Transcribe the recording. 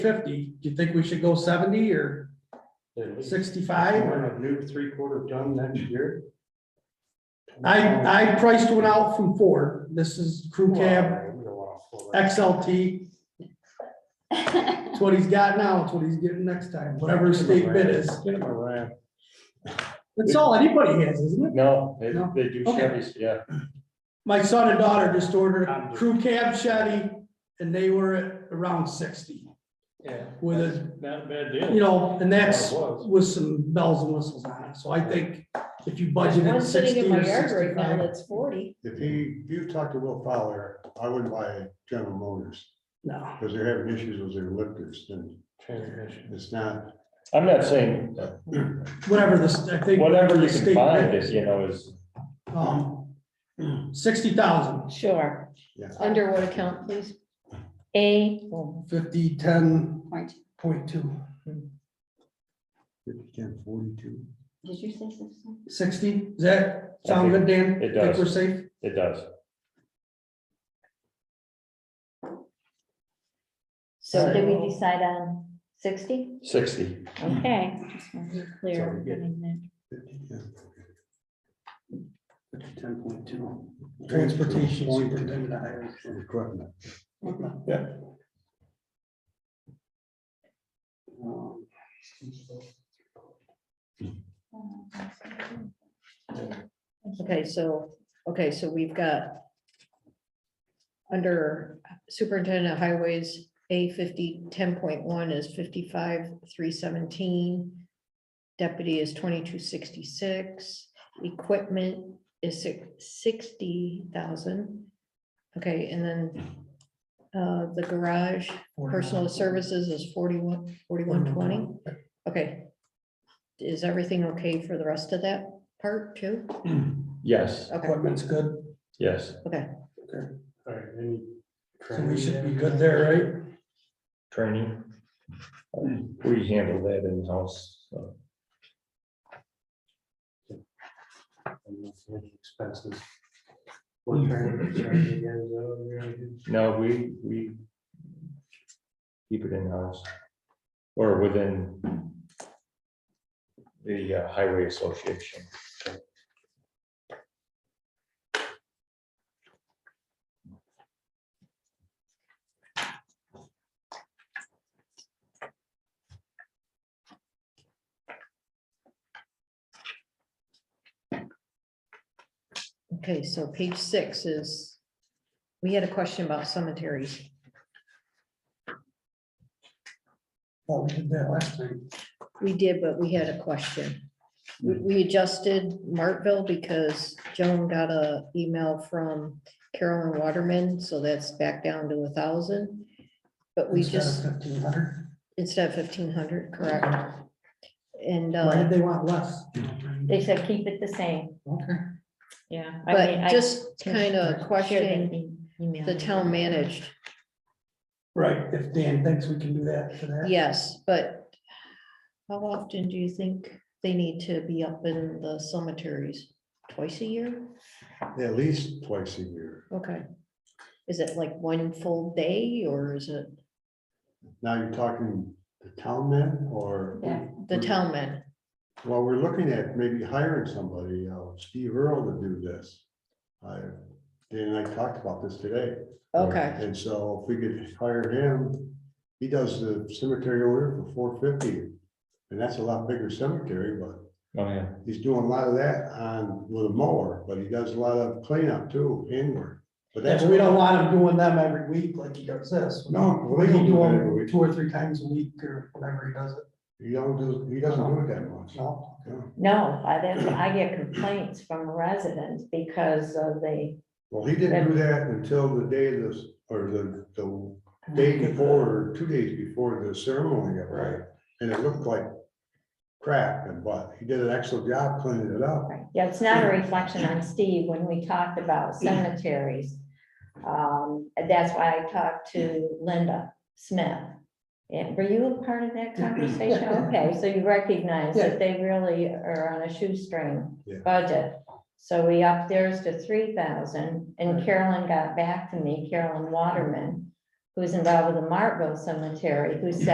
fifty, do you think we should go seventy or sixty-five? We're or- in a new three-quarter ton next year. I, I priced one out from Ford. This is crew cab XLT. It's what he's got now, it's what he's getting next time, whatever his state bid is. That's all anybody has, isn't it? No, they, No? they do Okay. Chevys, yeah. My son and daughter just ordered a crew cab Chevy and they were at around sixty Yeah. with a, Not a bad deal. you know, and that's It was. with some bells and whistles on it. So I think if you There's budgeted one sitting sixty in my or yard right now sixty-five, that's forty. If he, if you talk to Will Fowler, I wouldn't buy General Motors, no. because they're having issues with their lifters, and Transmission. it's not, I'm not saying, Whatever this, I think. whatever the you state bid can find is. is, you know, is, Um, sixty thousand, Sure. Yeah. Under what account, please? A. oh, fifty, ten Point. point two, fifty-ten, forty-two. Did you say something? sixty, does that sound good, Dan? Think It does. we're safe? it does. So did we decide on sixty? Sixty, Okay. just wanted to be clear So we get- on that. Ten point two. Transportation superintendent of highways. Equipment, Okay, so, okay, so we've got under superintendent of highways, A fifty, ten point one is fifty-five, three seventeen. Deputy is twenty-two sixty-six, equipment is sixty thousand. Okay, and then uh, the garage, personal services is forty-one, forty-one twenty. Okay. Is everything okay for the rest of that part too? yes, Okay, Equipment's good, yes, okay, Alright, any. so we should be good there, training. We handle that in-house, so. Expenses. What kind of charge you guys owe, you know? no, we, we keep it in-house or within the uh, highway association. okay, so page six is, we had a question about cemeteries. right? Oh, we did that last time. We did, but we had a question. We- We adjusted Martville because Joan got a email from Carolyn Waterman, so that's back down to a thousand. But we just, Fifteen hundred, instead of fifteen hundred, correct? And, why uh, did they want less? They said keep it the same, Okay, yeah. I mean, but I just kind shared of that questioning e- email. the town managed, right, if Dan thinks we can do that for that. yes, but how often do you think they need to be up in the cemeteries? Twice a year? at least twice a year. Okay. Is it like one full day or is it Now you're talking the town man, or? Yeah. the town man? Well, we're looking at maybe hiring somebody, uh, Steve Earl to do this. I, Dan and I talked about this today. Okay, And so if we could hire him, he does the cemetery order for four fifty. And that's a lot bigger cemetery, but Oh, yeah. he's doing a lot of that on with a mower, but he does a lot of cleanup too, inward. But Yeah, that's, but we don't want him doing them every week like he does this. No, We we can don't do do it every them week. two or three times a week or whenever he does it, he don't do, he doesn't do it that much. no? No. No, I, that's, I get complaints from residents because of the, Well, he didn't do that until the day of this, or the, the day before, or two days before the ceremony, right? And it looked like crap, and but he did an excellent job cleaning it up. yeah, it's not a reflection on Steve when we talked about cemeteries. Um, and that's why I talked to Linda Smith. And were you a part of that conversation? Okay, so you recognize that they really are on a shoestring Yeah. budget. So we upped theirs to three thousand, and Carolyn got back to me, Carolyn Waterman, who's involved with the Martville Cemetery, who said.